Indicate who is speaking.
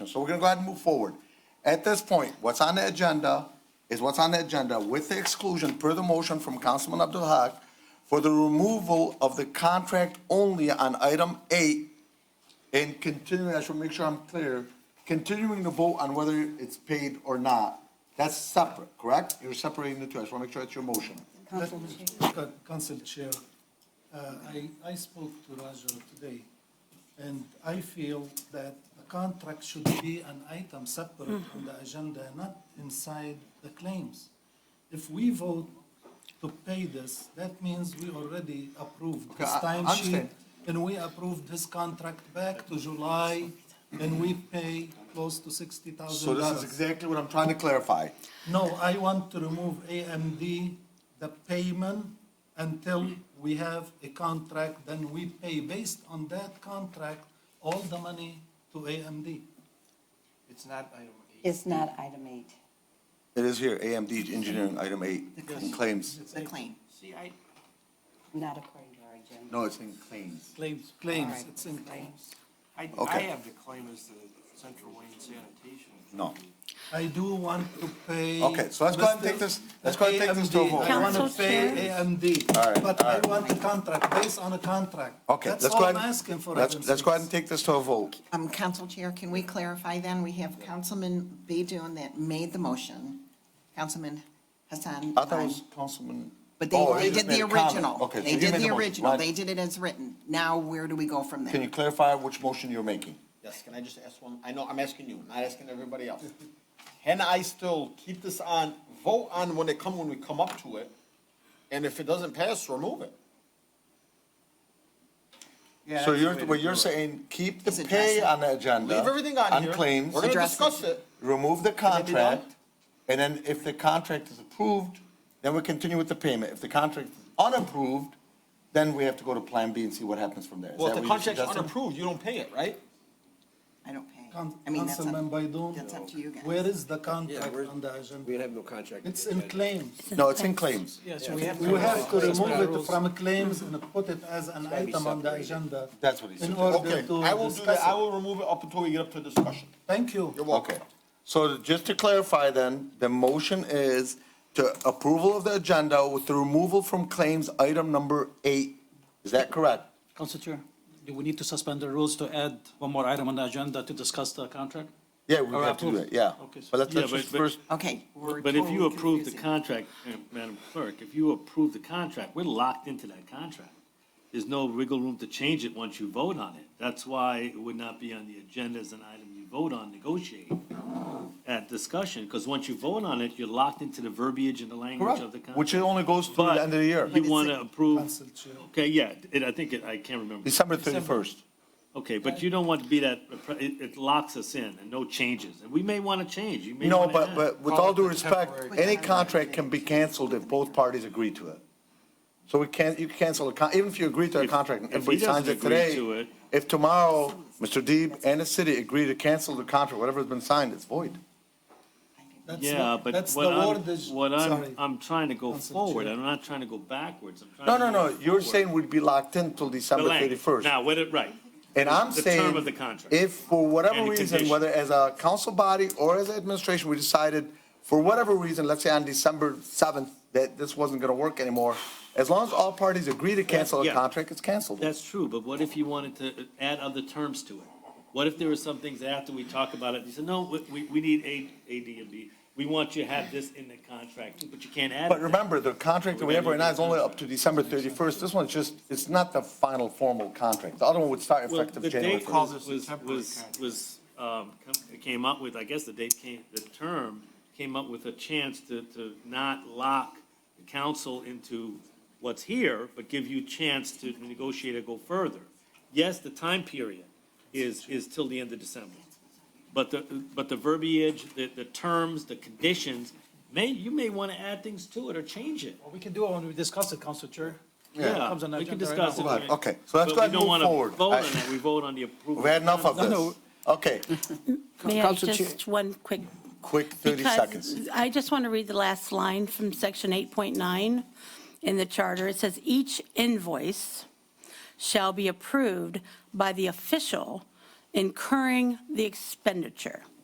Speaker 1: So we're gonna go ahead and move forward. At this point, what's on the agenda is what's on the agenda with the exclusion per the motion from Councilman Abdul Haq for the removal of the contract only on item eight and continuing, I should make sure I'm clear, continuing the vote on whether it's paid or not. That's separate, correct? You're separating the two. I just wanna make sure that's your motion.
Speaker 2: Uh, Council Chair, uh, I, I spoke to Roger today, and I feel that the contract should be an item separate on the agenda, not inside the claims. If we vote to pay this, that means we already approved
Speaker 1: Okay,
Speaker 2: this
Speaker 1: I- I
Speaker 2: timesheet,
Speaker 1: understand.
Speaker 2: and we approved this contract back to July, and we pay close to sixty
Speaker 1: So
Speaker 2: thousand
Speaker 1: this is
Speaker 2: dollars.
Speaker 1: exactly what I'm trying to clarify.
Speaker 2: No, I want to remove AMD, the payment, until we have a contract, then we pay based on that contract, all the money to AMD.
Speaker 3: It's not item eight.
Speaker 4: It's not item eight.
Speaker 1: It is here, AMD Engineering, item eight, in claims.
Speaker 5: The claim.
Speaker 3: See, I,
Speaker 4: Not according to our agenda.
Speaker 1: No, it's in claims.
Speaker 2: Claims. Claims,
Speaker 4: Alright,
Speaker 2: it's in claims.
Speaker 3: I, I
Speaker 1: Okay.
Speaker 3: have the claim as the Central Wayne Sanitation.
Speaker 1: No.
Speaker 2: I do want to pay.
Speaker 1: Okay, so let's go ahead and take this- let's go ahead and take this to a
Speaker 2: AMD.
Speaker 1: vote.
Speaker 2: I want to
Speaker 5: Council
Speaker 2: pay AMD.
Speaker 1: Alright,
Speaker 2: But I want a contract, based on a contract.
Speaker 1: Okay, let's
Speaker 2: That's
Speaker 1: go
Speaker 2: all
Speaker 1: ahead.
Speaker 2: I'm asking for.
Speaker 1: Let's,
Speaker 2: Adam
Speaker 1: let's go ahead and
Speaker 2: Smith.
Speaker 1: take this to a vote.
Speaker 5: Um, Council Chair, can we clarify then? We have Councilman Baydun that made the motion, Councilman Hassan.
Speaker 1: I thought it
Speaker 5: um,
Speaker 1: was Councilman.
Speaker 5: But
Speaker 1: Oh,
Speaker 5: they,
Speaker 1: he
Speaker 5: they
Speaker 1: just
Speaker 5: did the
Speaker 1: made a comment.
Speaker 5: original.
Speaker 1: Okay, so
Speaker 5: They
Speaker 1: you
Speaker 5: did
Speaker 1: made
Speaker 5: the
Speaker 1: motion,
Speaker 5: original.
Speaker 1: right.
Speaker 5: They did it as written. Now, where do we go from
Speaker 1: Can
Speaker 5: there?
Speaker 1: you clarify which motion you're making?
Speaker 6: Yes, can I just ask one? I know, I'm asking you, not asking everybody else. Can I still keep this on, vote on when it come, when we come up to it? And if it doesn't pass, remove it?
Speaker 1: So you're, what you're saying, keep the
Speaker 5: Is it
Speaker 1: pay
Speaker 5: dressing?
Speaker 1: on the agenda.
Speaker 6: Leave everything on here.
Speaker 1: claims,
Speaker 6: We're gonna
Speaker 5: Address it.
Speaker 6: discuss it.
Speaker 1: remove the
Speaker 6: that be done?
Speaker 1: contract, and then if the contract is approved, then we continue with the payment. If the contract is unapproved, then we have to go to Plan B and see what happens from there. Is
Speaker 6: Well, if
Speaker 1: that
Speaker 6: the
Speaker 1: what you're
Speaker 6: contract's
Speaker 1: suggesting?
Speaker 6: unapproved, you don't pay it, right?
Speaker 5: I don't pay.
Speaker 2: Coun-
Speaker 5: I mean, that's up-
Speaker 2: Councilman Baydun.
Speaker 5: That's up to you guys.
Speaker 2: Where is the contract
Speaker 7: where's-
Speaker 2: on the agenda?
Speaker 7: We have no contract.
Speaker 2: It's in claims.
Speaker 1: No, it's in claims.
Speaker 2: We have to remove it from claims and put it as an
Speaker 7: gotta be
Speaker 2: item on the
Speaker 7: separated.
Speaker 2: agenda.
Speaker 1: That's what he said.
Speaker 2: In order
Speaker 6: Okay, I
Speaker 2: to
Speaker 6: will do that. I
Speaker 2: discuss it.
Speaker 6: will remove it up until we get up to discussion.
Speaker 2: Thank you.
Speaker 6: You're welcome.
Speaker 1: Okay, so just to clarify then, the motion is to approval of the agenda with the removal from claims item number eight. Is that correct?
Speaker 8: Council Chair, do we need to suspend the rules to add one more item on the agenda to discuss the contract?
Speaker 1: Yeah, we
Speaker 8: Or
Speaker 1: have to do
Speaker 8: approve?
Speaker 1: that, yeah.
Speaker 8: Okay, so-
Speaker 1: But let's,
Speaker 9: Yeah,
Speaker 1: let's
Speaker 9: but-
Speaker 1: just
Speaker 9: but-
Speaker 1: first,
Speaker 5: Okay. we're
Speaker 9: But if you
Speaker 5: totally
Speaker 9: approve the
Speaker 5: confusing.
Speaker 9: contract, uh, Madam Clerk, if you approve the contract, we're locked into that contract. There's no wiggle room to change it once you vote on it. That's why it would not be on the agenda as an item you vote on, negotiate at discussion, because once you vote on it, you're locked into the verbiage and the language
Speaker 1: correct,
Speaker 9: of the contract.
Speaker 1: which it only goes to
Speaker 9: But
Speaker 1: the end of the year,
Speaker 9: You want to approve,
Speaker 2: Council Chair.
Speaker 9: okay, yeah, it, I think, it- I can't remember.
Speaker 1: December thirty-first.
Speaker 9: Okay, but you don't want to be that, it, it locks us in and no changes. And we may want to change, you may
Speaker 1: No,
Speaker 9: want to
Speaker 1: but, but with all due respect, any contract can be canceled if both parties agree to it. So we can't, you can cancel a con, even if you agree to a
Speaker 9: If-
Speaker 1: contract, and
Speaker 9: if he
Speaker 1: everybody signs
Speaker 9: doesn't
Speaker 1: it
Speaker 9: agree
Speaker 1: today.
Speaker 9: to it-
Speaker 1: If tomorrow, Mr. Deeb and the city agree to cancel the contract, whatever's been signed, it's void.
Speaker 2: That's
Speaker 9: Yeah,
Speaker 2: the-
Speaker 9: but
Speaker 2: that's
Speaker 9: what
Speaker 2: the
Speaker 9: I'm,
Speaker 2: wordage-
Speaker 9: what I'm,
Speaker 2: sorry.
Speaker 9: I'm trying to go
Speaker 2: Council
Speaker 9: forward,
Speaker 2: Chair.
Speaker 9: I'm not trying to go backwards, I'm trying
Speaker 1: No,
Speaker 9: to
Speaker 1: no,
Speaker 9: go
Speaker 1: no, you're
Speaker 9: forward.
Speaker 1: saying we'd be locked in till
Speaker 9: The
Speaker 1: December
Speaker 9: language.
Speaker 1: thirty-first.
Speaker 9: Now, what it, right,
Speaker 1: And I'm
Speaker 9: the term
Speaker 1: saying,
Speaker 9: of the contract.
Speaker 1: if for whatever
Speaker 9: And the
Speaker 1: reason,
Speaker 9: condition.
Speaker 1: whether as a council body or as an administration, we decided, for whatever reason, let's say on December seventh, that this wasn't gonna work anymore, as long as all parties agree to cancel a
Speaker 9: Yeah.
Speaker 1: contract, it's canceled.
Speaker 9: that's true, but what if you wanted to add other terms to it? What if there were some things after we talk about it, you said, no, we- we, we need A, A, D, and B, we want you to have this in the contract, too, but you can't add it.
Speaker 1: But
Speaker 9: there.
Speaker 1: remember, the contract that we have right now is only up to December thirty-first. This one's just, it's not the final formal contract. The other one would start
Speaker 9: Well,
Speaker 1: effective
Speaker 9: the
Speaker 1: January
Speaker 9: date
Speaker 1: first.
Speaker 3: Call this
Speaker 9: was-
Speaker 3: a
Speaker 9: was-
Speaker 3: temporary
Speaker 9: was-
Speaker 3: contract.
Speaker 9: Was, um, com- came up with, I guess the date came, the term came up with a chance to, to not lock the council into what's here, but give you chance to negotiate or go further. Yes, the time period is, is till the end of December. But the, but the verbiage, the, the terms, the conditions, may, you may want to add things to it or change it.
Speaker 8: We can do it when we discuss it, Council Chair.
Speaker 9: Yeah,
Speaker 8: Comes on the
Speaker 9: we can
Speaker 8: agenda right
Speaker 9: discuss it.
Speaker 8: now.
Speaker 1: Right, okay. So let's
Speaker 9: But
Speaker 1: go ahead
Speaker 9: we
Speaker 1: and
Speaker 9: don't
Speaker 1: move
Speaker 9: wanna
Speaker 1: forward.
Speaker 9: Vote
Speaker 1: I-
Speaker 9: on that, we vote on the approval.
Speaker 1: We've had enough of
Speaker 8: No, no.
Speaker 1: this. Okay,
Speaker 5: May
Speaker 10: May
Speaker 5: I
Speaker 10: I
Speaker 5: Council Chair-
Speaker 10: just, one quick,
Speaker 1: quick thirty seconds.
Speaker 10: because I just want to read the last line from section 8.9 in the charter. It says, "Each invoice shall be approved by the official incurring the expenditure.